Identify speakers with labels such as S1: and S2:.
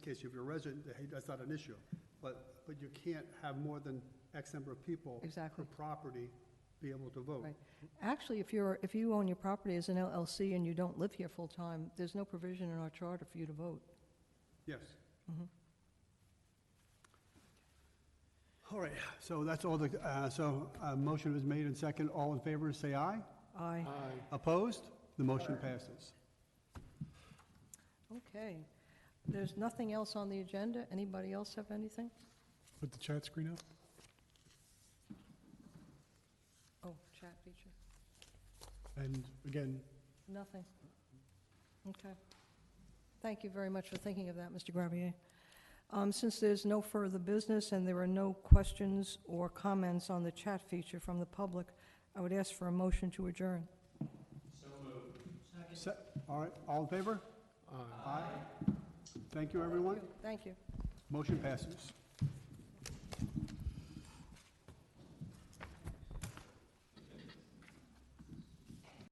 S1: case if you're a resident, hey, that's not an issue. But, but you can't have more than X number of people
S2: Exactly.
S1: per property be able to vote.
S2: Right. Actually, if you're, if you own your property as an LLC and you don't live here full-time, there's no provision in our charter for you to vote.
S1: Yes.
S2: Mm-hmm.
S1: All right, so that's all the, uh, so a motion was made and second. All in favor, say aye.
S2: Aye.
S1: Opposed? The motion passes.
S2: Okay. There's nothing else on the agenda? Anybody else have anything?
S3: Put the chat screen up.
S2: Oh, chat feature.
S3: And again,
S2: Nothing. Okay. Thank you very much for thinking of that, Mr. Gravier. Um, Since there's no further business and there are no questions or comments on the chat feature from the public, I would ask for a motion to adjourn.
S1: Se- All right, all in favor? Aye. Thank you, everyone.
S2: Thank you.
S1: Motion passes.